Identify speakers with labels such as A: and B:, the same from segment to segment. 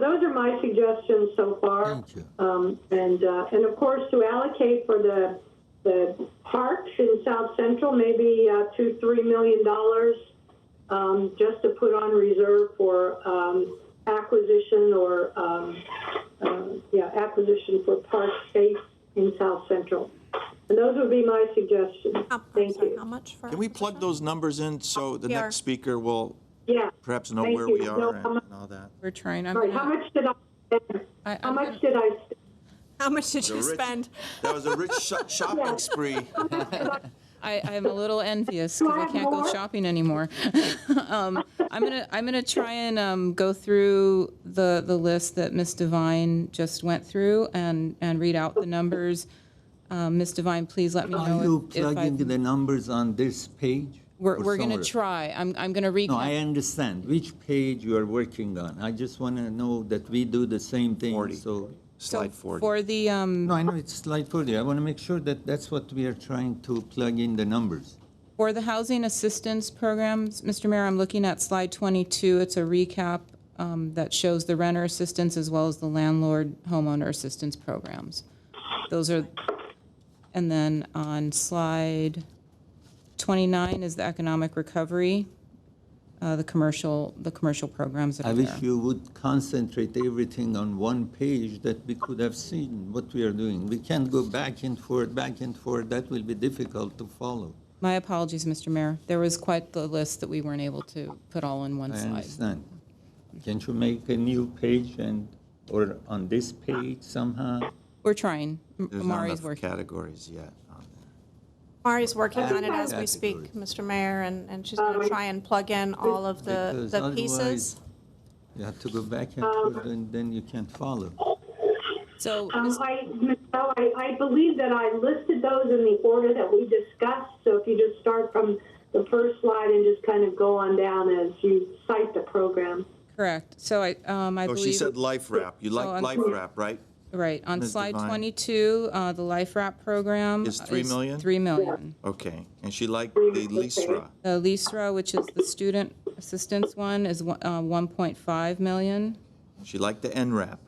A: those are my suggestions so far.
B: Thank you.
A: Um, and, uh, and of course, to allocate for the, the parks in South Central, maybe uh, two, three million dollars um, just to put on reserve for um, acquisition or, um, uh, yeah, acquisition for park space in South Central. And those would be my suggestions.
C: Um, I'm
A: Thank
C: sorry,
A: you.
C: How much for?
D: Can we plug those numbers in so the
C: Yeah.
D: next speaker will
A: Yeah.
D: perhaps know
A: Thank
D: where
A: you.
D: we
A: No,
D: are and
A: I'm-
D: and all that?
E: We're trying, I'm
A: All right, how
E: gonna,
A: much did I, spend?
E: I-
A: how
E: I'm
A: much did I, spend?
C: How much did you
D: rich-
C: spend?
D: That was a rich sho- shopping spree.
E: I, I'm a little envious because I
A: have
E: can't go
A: more?
E: shopping anymore. Um, I'm gonna, I'm gonna try and, um, go through the, the list that Ms. Devine just went through and, and read out the numbers. Um, Ms. Devine, please let me
B: Are you
E: know if- if
B: plugging
E: I,
B: the numbers on this page?
E: we're,
B: or
E: we're gonna
B: somewhere?
E: try. I'm, I'm gonna
B: No, I
E: recap.
B: understand which page you are working on. I just want to know that we do the same thing,
D: Forty.
B: so.
E: So
D: Slide 40.
E: For the, um,
B: No, I know it's slide 40. I want to make sure that that's what we are trying to plug in the numbers.
E: For the housing assistance programs, Mr. Mayor, I'm looking at slide 22. It's a recap um, that shows the renter assistance as well as the landlord homeowner assistance programs. Those are, and then on slide 29 is the economic recovery, uh, the commercial, the commercial programs that
B: I
E: are
B: wish
E: there.
B: you would concentrate everything on one page that we could have seen what we are doing. We can't go back and forth, back and forth. That will be difficult to follow.
E: My apologies, Mr. Mayor. There was quite the list that we weren't able to put all in one
B: I
E: slide.
B: understand. Can't you make a new page and, or on this page somehow?
E: We're trying. M-
D: There's not
E: Mari's
D: enough
E: working.
D: categories yet on that.
C: Mari's working on it as we speak,
B: Categories.
C: Mr. Mayor, and, and she's
A: Um,
C: going to try and plug in all of the,
B: Because
C: the
B: otherwise,
C: pieces.
B: You have to go back and forth, and then you can't follow.
E: So,
A: Um,
E: Ms.
A: I, Michelle, I, I believe that I listed those in the order that we discussed, so if you just start from the first slide and just kind of go on down as you cite the program.
E: correct. So I, um, I
D: Oh,
E: believe.
D: she said life wrap. You
E: Oh,
D: like
E: I'm
D: life
E: sorry.
D: wrap, right?
E: Right, on
D: Ms.
E: slide
D: Devine.
E: 22, uh, the Life Wrap program.
D: Is three million?
E: 3 million.
D: Okay. And she liked the Lisra.
E: The LISRA, which is the student assistance one, is one- uh, 1.5 million.
D: She liked the NRAP.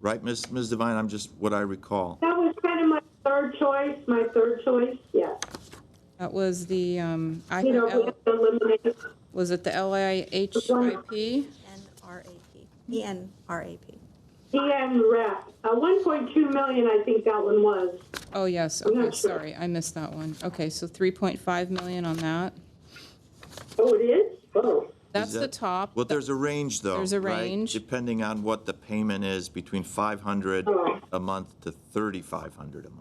D: Right, Ms. Ms. Devine? I'm just what I recall.
A: That was kind of my third choice, my third choice, yes.
E: That was the, um, I
A: You know,
E: heard
A: we
E: L-
A: have to eliminate,
E: was it the LIHIP?
C: NRAP, ENRAP.
A: and rep, uh, one point two million, I think that one was.
E: Oh, yes,
A: not
E: okay,
A: sure.
E: sorry, I missed that one. Okay, so 3.5 million on that.
A: Oh, it is? Oh,
E: That's the
D: that-
E: top.
D: Well, there's a range, though.
E: There's a
D: right?
E: range.
D: Depending on what the payment is, between 500
A: Oh.
D: a month to 3,500 a month.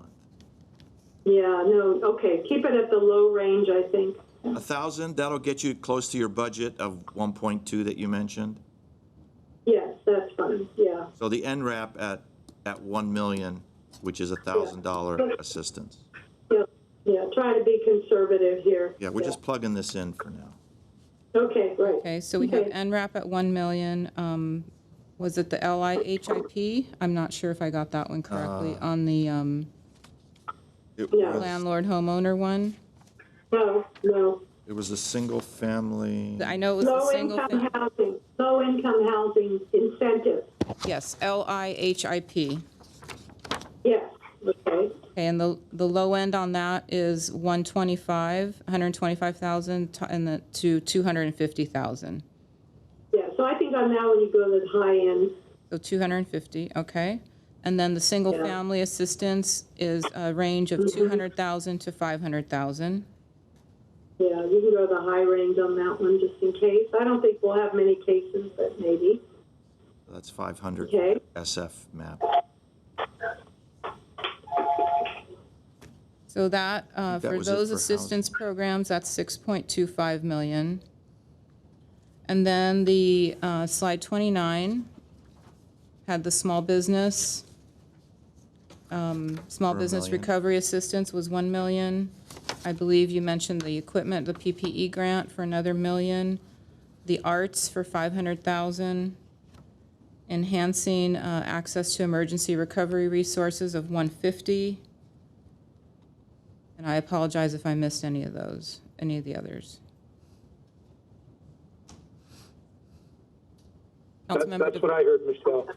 A: yeah, no, okay, keep it at the low range, I think.
D: A thousand, that'll get you close to your budget of 1.2 that you mentioned.
A: Yes, that's fine, yeah.
D: So the NRAP at, at 1 million, which is a $1,000 assistance.
A: Yeah, yeah, try to be conservative here.
D: Yeah, we're just plugging this in for now.
A: Okay, right.
E: Okay, so we have
A: Okay.
E: NRAP at 1 million. um, Was it the LIHIP? I'm not sure if I got that one correctly,
D: Uh,
E: on the um,
D: It
A: Yeah.
D: was-
E: landlord homeowner one.
A: No, no.
D: It was a single family.
E: I know it was the
A: Low
E: single,
A: income
E: fam-
A: housing, low income housing incentive.
E: yes, LIHIP.
A: Yes, okay.
E: Okay, and the, the low end on that is 125, 125,000 to- and the, to 250,000.
A: Yeah, so I think on that one you go to the high end.
E: So 250, okay. And then the single family assistance is a range of 200,000 to 500,000.
A: Yeah, you can go to the high range on that one just in case. I don't think we'll have many cases, but maybe.
D: That's 500
A: Okay.
D: SF map.
E: So that, uh,
D: that
E: for
D: was it
E: those
D: for
E: assistance programs, that's 6.25 million. And then the uh, slide 29 had the small business. um, Small
D: For a
E: business
D: million.
E: recovery assistance was 1 million. I believe you mentioned the equipment, the PPE grant for another million, the arts for 500,000, enhancing uh, access to emergency recovery resources of 150. And I apologize if I missed any of those, any of the others.
F: That-
E: Councilmember
F: That's
E: DeVore.
F: what I heard, Michelle.